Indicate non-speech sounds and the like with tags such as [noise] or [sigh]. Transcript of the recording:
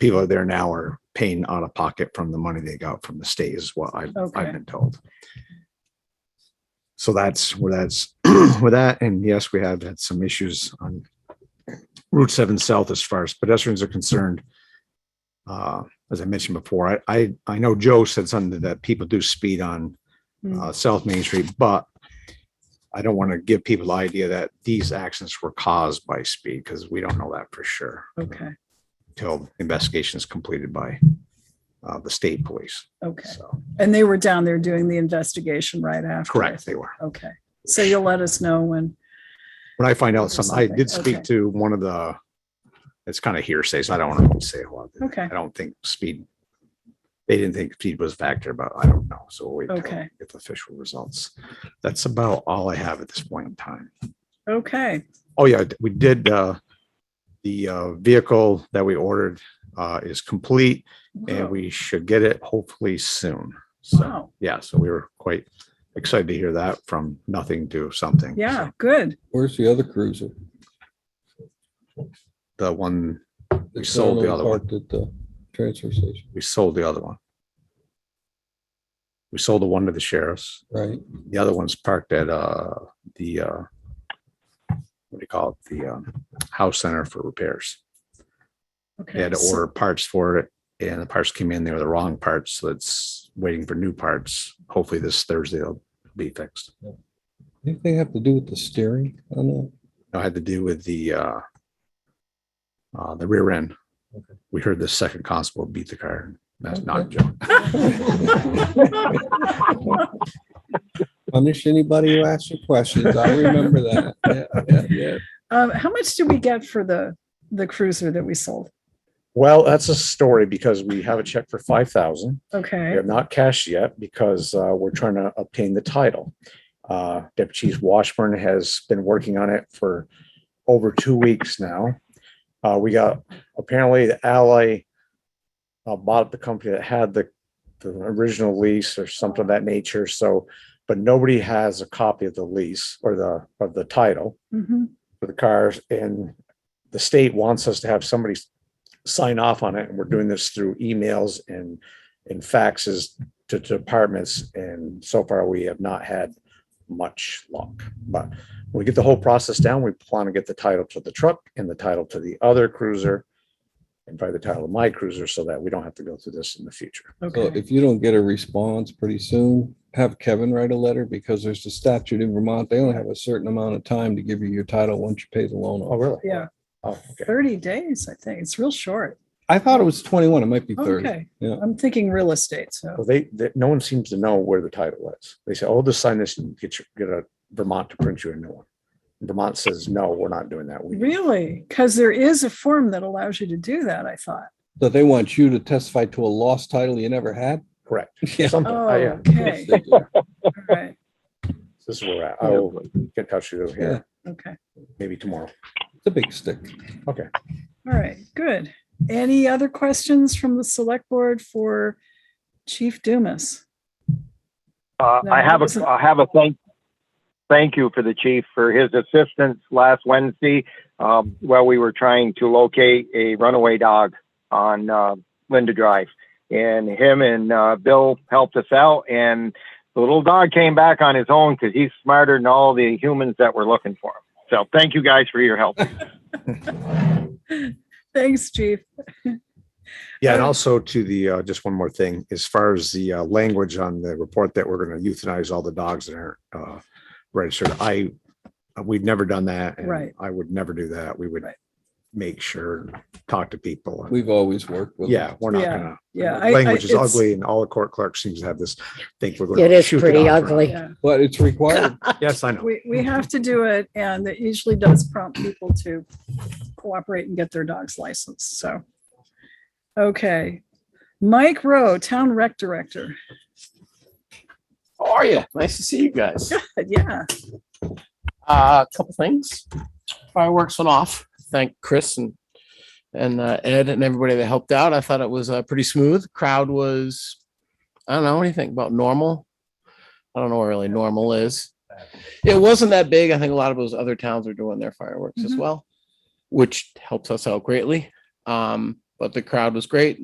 people there now are paying out of pocket from the money they got from the state is what I've, Okay. I've been told. So that's where that's [clears throat] with that. And yes, we have had some issues on Route seven south as far as pedestrians are concerned. Uh, as I mentioned before, I, I, I know Joe said something that people do speed on Mm. uh, South Main Street, but I don't want to give people the idea that these accidents were caused by speed because we don't know that for sure Okay, till investigation is completed by uh, the state police. okay. So, And they were down there doing the investigation right after? correct, they were. Okay, so you'll let us know when, When I find out There's something, I something, did speak okay. to one of the, it's kind of hearsay, so I don't want to say a lot. Okay. I don't think speed, they didn't think speed was a factor, but I don't know. So we'll wait till Okay. get the official results. That's about all I have at this point in time. okay, Oh, yeah, we did, uh, the, uh, vehicle that we ordered, uh, is complete Wow. and we should get it hopefully soon. So, wow, yeah, so we were quite excited to hear that from nothing to something. yeah, good. Where's the other cruiser? The one, We It's sold the down other one. parked At the transfer station, we sold the other one. We sold the one to the sheriffs. right? The other one's parked at, uh, the, uh, what do you call it? The, um, House Center for Repairs. They Okay. had to so- order parts for it and the parts came in, they were the wrong parts. So it's waiting for new parts. Hopefully this Thursday they'll be fixed. Didn't they have to do with the steering on that? I had to do with the uh, uh, the rear end. Okay. We heard the second constable beat the car. That's not a Okay. joke. [laughs] Punish anybody who asks you questions. I remember that. Yeah, yeah, yeah. Um, how much did we get for the, the cruiser that we sold? Well, that's a story because we have a check for five thousand. We Okay, have not cashed yet because uh, we're trying to obtain the title. Uh, Deputy Chief Washburn has been working on it for over two weeks now. Uh, We got, apparently the ally uh, bought the company that had the, the original lease or something of that nature. So, but nobody has a copy of the lease or the, of the title Mhm. for the cars and the state wants us to have somebody s- sign off on it. And we're doing this through emails and, and faxes to to departments. And so far we have not had much luck, but we get the whole process down. We plan to get the title to the truck and the title to the other cruiser and probably the title of my cruiser so that we don't have to go through this in the future. So okay, if you don't get a response pretty soon, have Kevin write a letter because there's a statute in Vermont. They only have a certain amount of time to give you your title once you pay the loan off. really? yeah, Oh, okay. thirty days, I think, it's real short. I thought it was twenty-one. It might be thirty. Okay, Yeah. I'm thinking real estate, so, Well, Oh, they, they, no one seems to know where the title is. They say, oh, just sign this and get your, get a Vermont to print you a new one. Vermont says, no, we're not doing that. We- really, because there is a form that allows you to do that, I thought. So they want you to testify to a lost title you never had? [laughs] Correct. Yeah. Something, Oh, I, yeah, [laughs] okay, They do. all right, this is where we're at. I will get in touch with you here, okay, maybe tomorrow. It's a big stick. all right, good. Any other questions from the select board for Chief Dumas? Uh, No, I that have wasn't- a, I have a thank, thank you for the chief for his assistance last Wednesday. Um, while we were trying to locate a runaway dog on, uh, Linda Drive. And him and, uh, Bill helped us out and the little dog came back on his own because he's smarter than all the humans that were looking for him. So thank you guys for your help. Thanks, Chief. Yeah, and Um, also to the, uh, just one more thing, as far as the, uh, language on the report that we're gonna euthanize all the dogs that aren't, uh, registered, I, we've never done that. and Right. I would never do that. We would Right. make sure, talk to people. and- We've always worked with. Yeah, we're not Yeah, gonna. Yeah. I- I- Language is it's- ugly and all the court clerks seems to have this, think we're. gonna It is shoot the pretty dogs around. ugly. Yeah, But it's required. Yes, I know. we, we have to do it and it usually does prompt people to cooperate and get their dog's license, so. Okay, Mike Rowe, Town Rec Director. [laughs] How are you? Nice to see you guys. Yeah, Uh, a couple things. Fireworks went off. Thank Chris and and uh, Ed and everybody that helped out. I thought it was uh, pretty smooth. Crowd was, I don't know anything about normal. I don't know what really normal is. It wasn't that big. I think a lot of those other towns are doing their fireworks as Mhm. well, which helps us out greatly. Um, but the crowd was great.